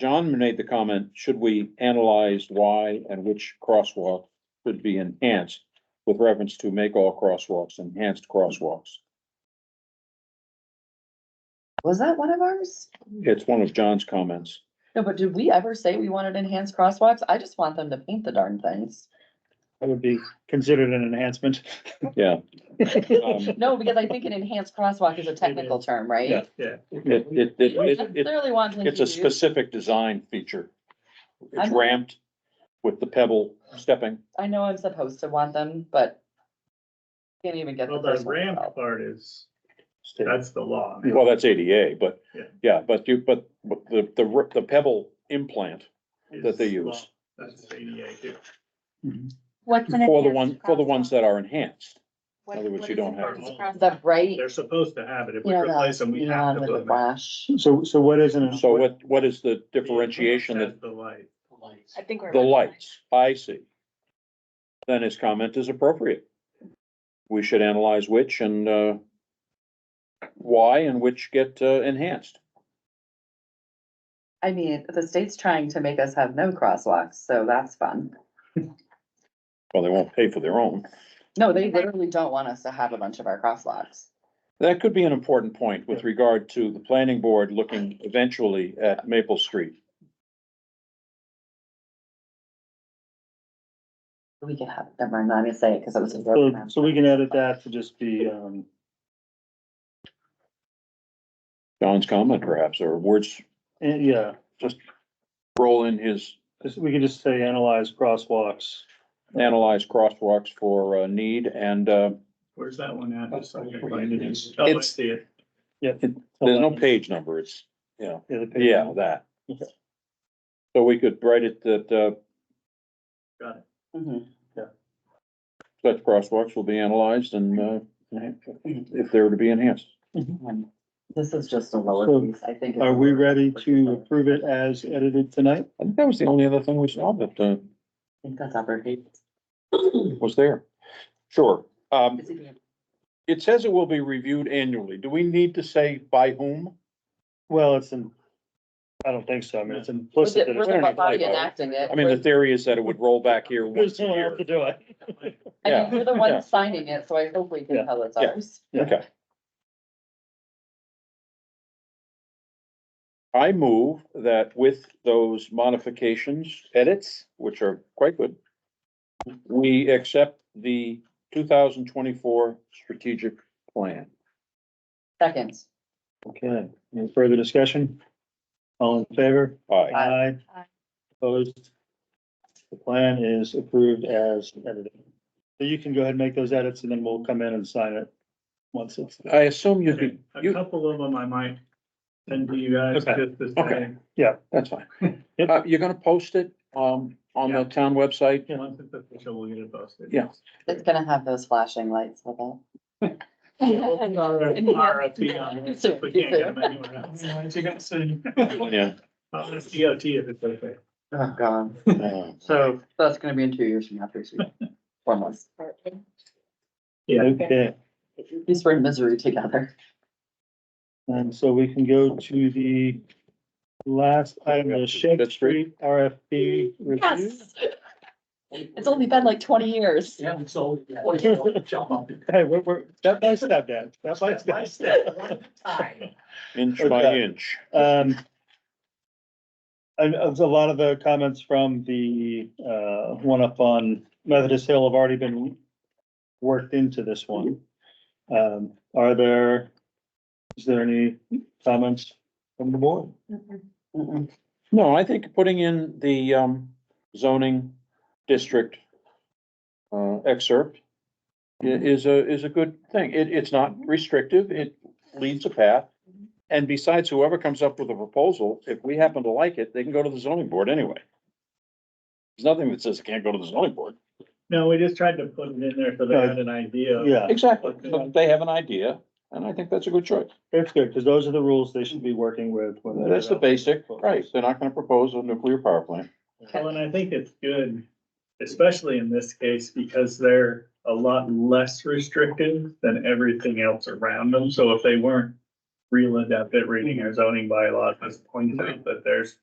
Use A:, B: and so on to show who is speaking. A: John made the comment, should we analyze why and which crosswalk should be enhanced? With reference to make all crosswalks enhanced crosswalks.
B: Was that one of ours?
A: It's one of John's comments.
B: No, but did we ever say we wanted enhanced crosswalks? I just want them to paint the darn things.
C: That would be considered an enhancement.
A: Yeah.
C: Yeah,
A: Um,
B: No, because I think an enhanced crosswalk is a technical term, right?
A: It, it, it,
B: I
A: it, it-
B: Clearly want. them
A: it's
B: to
A: a
B: do-
A: specific design feature. It's
B: I'm-
A: ramped with the pebble stepping.
B: I know I'm supposed to want them, but. Can't even get the
D: Well, the
B: first one
D: ramp
B: out.
D: part is, that's the law.
A: Well, that's ADA, but,
D: Yeah.
A: yeah, but you, but, but the, the, r- the pebble implant that they
D: It's law.
A: use.
D: That's ADA too.
E: What's an
A: For the
E: enhanced
A: one, for the ones
E: crosswalk?
A: that are enhanced.
E: What-
A: other words,
E: what
A: you
E: is
A: don't
E: an
A: have
D: them.
E: enhanced crosswalk?
B: The bright.
D: They're supposed to have it. If we
B: You know, the
D: replace them, we have
B: neon
D: to
B: with
D: put
B: the
D: them. in.
B: flash.
C: So, so what is an?
A: So what, what is the differentiation that
D: That's The light.
E: I think we're.
A: the lights, I see. Then his comment is appropriate. We should analyze which and, uh, why and which get, uh, enhanced.
B: I mean, the state's trying to make us have no crosswalks, so that's fun.
A: Well, they won't pay for their own.
B: No, they literally don't want us to have a bunch of our crosswalks.
A: That could be an important point with regard to the planning board looking eventually at Maple Street.
B: We could have, never mind, I'm gonna say it because it was. a joke.
C: So, so we can edit that to just be, um,
A: John's comment perhaps, or words,
C: eh, yeah,
A: roll in his
C: just- we can just say analyze crosswalks.
A: analyze crosswalks for, uh, need and, uh,
D: Where's that one at?
C: That's-
D: So I can find it. Oh, I
A: It's-
D: see it.
A: there's no page number. It's, you know.
C: Yeah, the page.
A: Yeah, that.
C: Okay.
A: So we could write it that, uh,
D: Got it.
B: Mhm.
A: such crosswalks will be analyzed and, uh, if they're to be enhanced.
B: Um, This is just a lower
C: So,
B: piece, I think. it's-
C: Are we ready to approve it as edited tonight?
A: I think that was the only other thing we saw that, uh,
B: I think that's uppercase.
A: was there. Sure. Um,
B: Is it-
A: it says it will be reviewed annually. Do we need to say by whom?
C: Well, it's in, I don't think so. I mean, it's
B: Was
C: implicit.
B: it,
C: that
B: we're
C: it's-
B: the
A: Internet
B: body
A: typo.
B: enacting it.
A: I mean, the
B: We're-
A: theory is that it would roll back here
C: There's
A: once a
C: no one else
A: year.
C: to do it.
B: I
A: yeah,
B: mean, we're the
A: yeah.
B: ones signing it, so I hope we can
C: Yeah,
B: tell it's
A: yeah.
B: ours.
A: Okay. I move that with those modifications, edits, which are quite good, we accept the two thousand twenty-four strategic plan.
B: Second,
C: Okay, any further discussion? All in favor?
A: Aye.
C: Aye.
E: Aye.
C: Opposed? The plan is approved as edited. So you can go ahead and make those edits and then we'll come in and sign it once it's,
A: I assume you'd
D: Okay,
A: be,
D: A
A: you,
D: couple of them I might send to you guys
C: Okay.
D: just to
A: Okay.
D: say,
A: that's fine.
C: Yep.
A: Uh, you're gonna post it, um, on the town website?
D: once it's official, we'll get it posted.
A: Yeah.
B: it's gonna have those flashing lights with it.
D: Or an RFP on it, if we can't get them anywhere else.
C: you're gonna see.
A: Oh, Yeah.
D: I'll ask DOT if it's okay.
B: Oh, God.
A: Uh,
B: So that's gonna be in two years from now, three weeks, four months.
D: Yeah.
C: Okay,
B: At least we're in misery together.
C: and so we can go to the last item, the Shake
A: That's great.
C: Street RFP review.
B: Yes. It's only been like twenty years.
D: Yeah, so. Jump up.
C: Hey, we're, we're, step by step, Dan, step by
D: Step by
C: step.
D: step, one time.
A: Inch by
C: Okay.
A: inch.
C: Um. And uh, a lot of the comments from the uh one up on Methodist Hill have already been worked into this one.
A: Mm-hmm.
C: Um, are there, is there any comments from the board?
E: Mm-hmm.
B: Mm-mm.
A: No, I think putting in the um zoning district. Uh excerpt. i- Is a, is a good thing. It, it's not restrictive. It leads a path. And besides, whoever comes up with a proposal, if we happen to like it, they can go to the zoning board anyway. There's nothing that says it can't go to the zoning board.
D: No, we just tried to put it in there so they had an idea.
C: Yeah,
A: Exactly. So They have an idea, and I think that's a good choice.
C: that's good, because those are the rules they should be working with. when they
A: That's the
C: develop.
A: basic, right? They're not gonna propose a nuclear power plant.
D: Well, and I think it's good, especially in this case, because they're a lot less restrictive than everything else around them. So if they weren't real adept at reading our zoning bylaws, this points out that there's